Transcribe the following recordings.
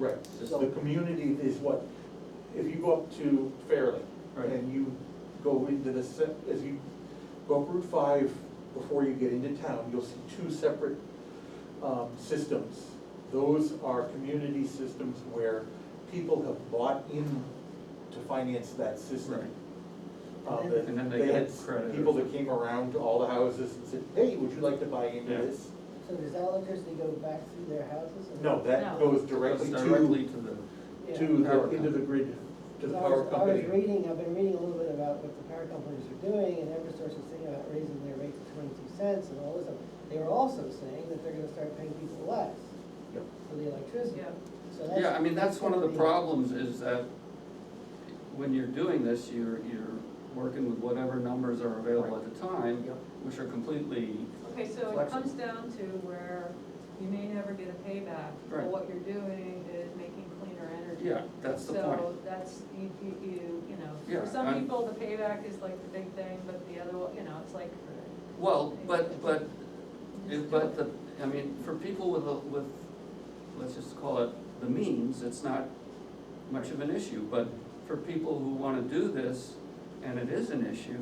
Right, It's so the the community is what, if you go up to Fairleigh Right. and you go into the, se- as you go up Route five, before you get into town, you'll see two separate, um, systems. Those are community systems where people have bought in to finance that system. Uh, And then- and then they had get credit or People that came around to all the houses and said, hey, would you like to buy into Yeah. this? So does that electricity go back through their houses? or- No, that No. goes Directly directly to. to the, Yeah. to Power the, into the company. grid, to the So I was- power company. I was reading, I've been reading a little bit about what the power companies are doing, and Eversource was thinking about raising their rate to twenty-two cents and all this stuff. They were also saying that they're gonna start paying people less Yep. for the electricity. Yeah. So that's. yeah, I mean, that's one of the gonna be- problems is that when you're doing this, you're, you're working with whatever numbers are available at the time, Yep. which are completely, Okay, so Flexible. it comes down to where you may never get a payback, but Right. what you're doing is making cleaner energy. yeah, that's the point. So that's, you, you, you, you know, Yeah, for some I'm- people, the payback is like the big thing, but the other, one, you know, it's like. Well, but, but, it- but the, I mean, for people with, a- with, let's just call it the means, it's not much of an issue, but for people who wanna do this, and it is an issue,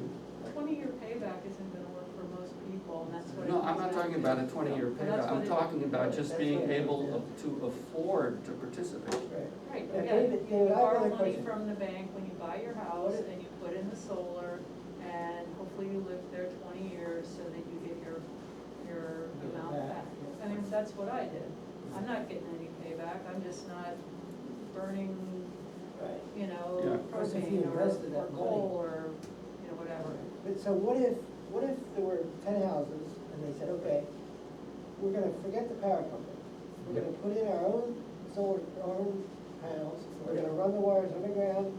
Twenty-year payback isn't gonna work for most people, and that's what. it No, I'm comes not down talking to. about a twenty-year But that's payback, I'm what it- talking about just that's being what it is, able yeah. of- to afford to participate. Right. Right, Yeah, yeah, David, you David, I have borrow another money question. from the bank when you buy your house and you put in the solar and hopefully you live there twenty years so that you get your, your Get it amount back, back. yeah. I mean, that's what I did. I'm not getting any payback, I'm just not burning, Right. you Yeah. know, Plus if you propane or, invested or that money. coal or, you know, whatever. But so what if, what if there were ten houses and they said, okay, we're gonna forget the power company. We're gonna put in our own solar, our own panels, we're gonna run the wires underground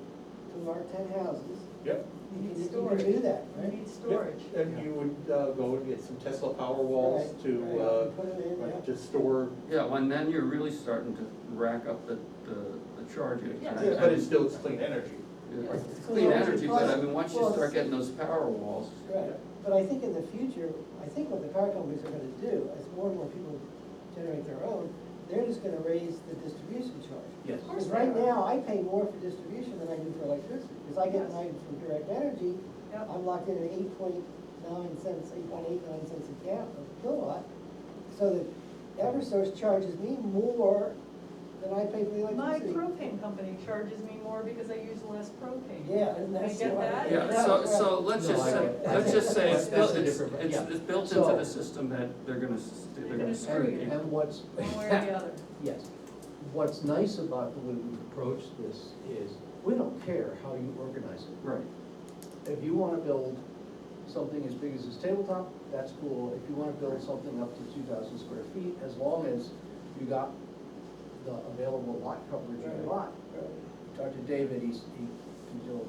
to our ten houses. Yep. You You can, need you can storage. do that, You right? need storage. Yep, And you would uh, go and get some Tesla power walls Right, to, right, uh, Put it in, like, yeah. to store, Yeah, well, and then you're really starting to rack up the, the, the charges. Yeah. and- but it's still, it's clean energy. Yeah, It's So clean the only energy, but I mean, cost- once you well, start it's- getting those power walls, Right, but I think in the future, I think what the power companies are gonna do, as more and more people generate their own, they're just gonna raise the distribution charge. Yes. Of course Because they right are. now, I pay more for distribution than I do for electricity, because I get Yes. mine from direct energy, Yep. I'm locked in at eight point nine cents, eight point eight nine cents a gallon, a kilowatt. So that Eversource charges me more than I pay for the My electricity. propane company charges me more because I use less propane. Yeah, and I that's get why- that. yeah, so, so let's No, just I say, get it. let's just say it's That's built, a it's, different- it's, yeah. it's built into the So- system that they're gonna, s- they're gonna screw And, you. and what's. One way or the other. Yes, what's nice about the way we approach this is, we don't care how you organize it. Right, If you wanna build something as big as this tabletop, that's cool, if you wanna build something up to two thousand square feet, as long as you got the available lot coverage in your Right. lot. Right, Dr. David, he's, he can build,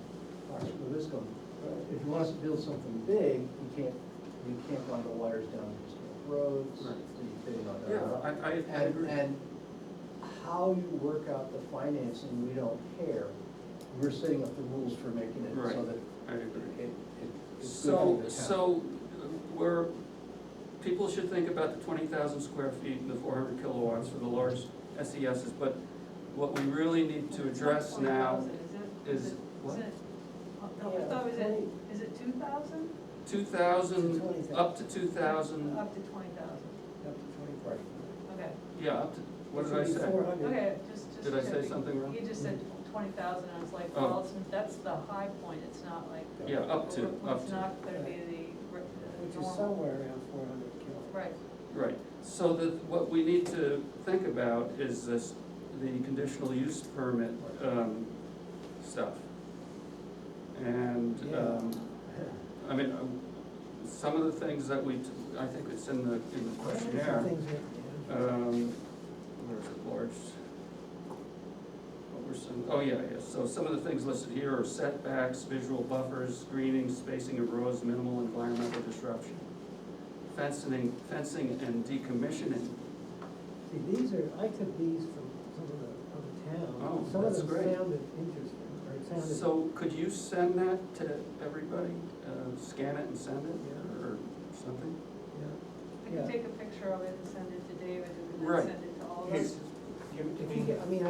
Fox this going, right. if you want us to build something big, you can't, you can't run the wires down historic roads, Right. you can't, uh, yeah, I, I, I And, agree. and how you work out the financing, we don't care, we're setting up the rules for making it Right. so that I agree. it, it, it's good for So, the town. so uh, we're, people should think about the twenty thousand square feet and the four hundred kilowatts for the large SESs, but what we really need to address now 20,000, is it- what? it- oh, no, I thought it was at- is it two thousand? two thousand, 20,000. up to two thousand, Up to twenty thousand, Up to Right. twenty-four. okay, yeah, up to, what did I say? Four hundred. okay, just, just. Did I say checking. something wrong? You just said twenty thousand, I was like, Oh. well, it's- that's the high point, it's not like. Yeah, up to, up It's to, not gonna be the re- Which the is normal, somewhere around four hundred kilowatts. right, right. So that, what we need to think about is this, the conditional use permit, um, stuff. And, Yeah. um, I mean, um, some of the things that we, t- I think it's in the, in the questionnaire, Things are- um, where is it, large? What were some, oh, yeah, yeah, so some of the things listed here are setbacks, visual buffers, screening, spacing of roads, minimal environmental disruption. Fencing, fencing and decommissioning, See, these are, I took these from some of the other Oh, towns. Some of that's them great. sounded interesting, or it sounded. so could you send that to everybody, uh, scan it and send it, Yeah. or something? yeah. I Yeah. can take a picture of it and send it to David, and Right. then send it to all of us. Hey, give it to If you me. get, I mean, I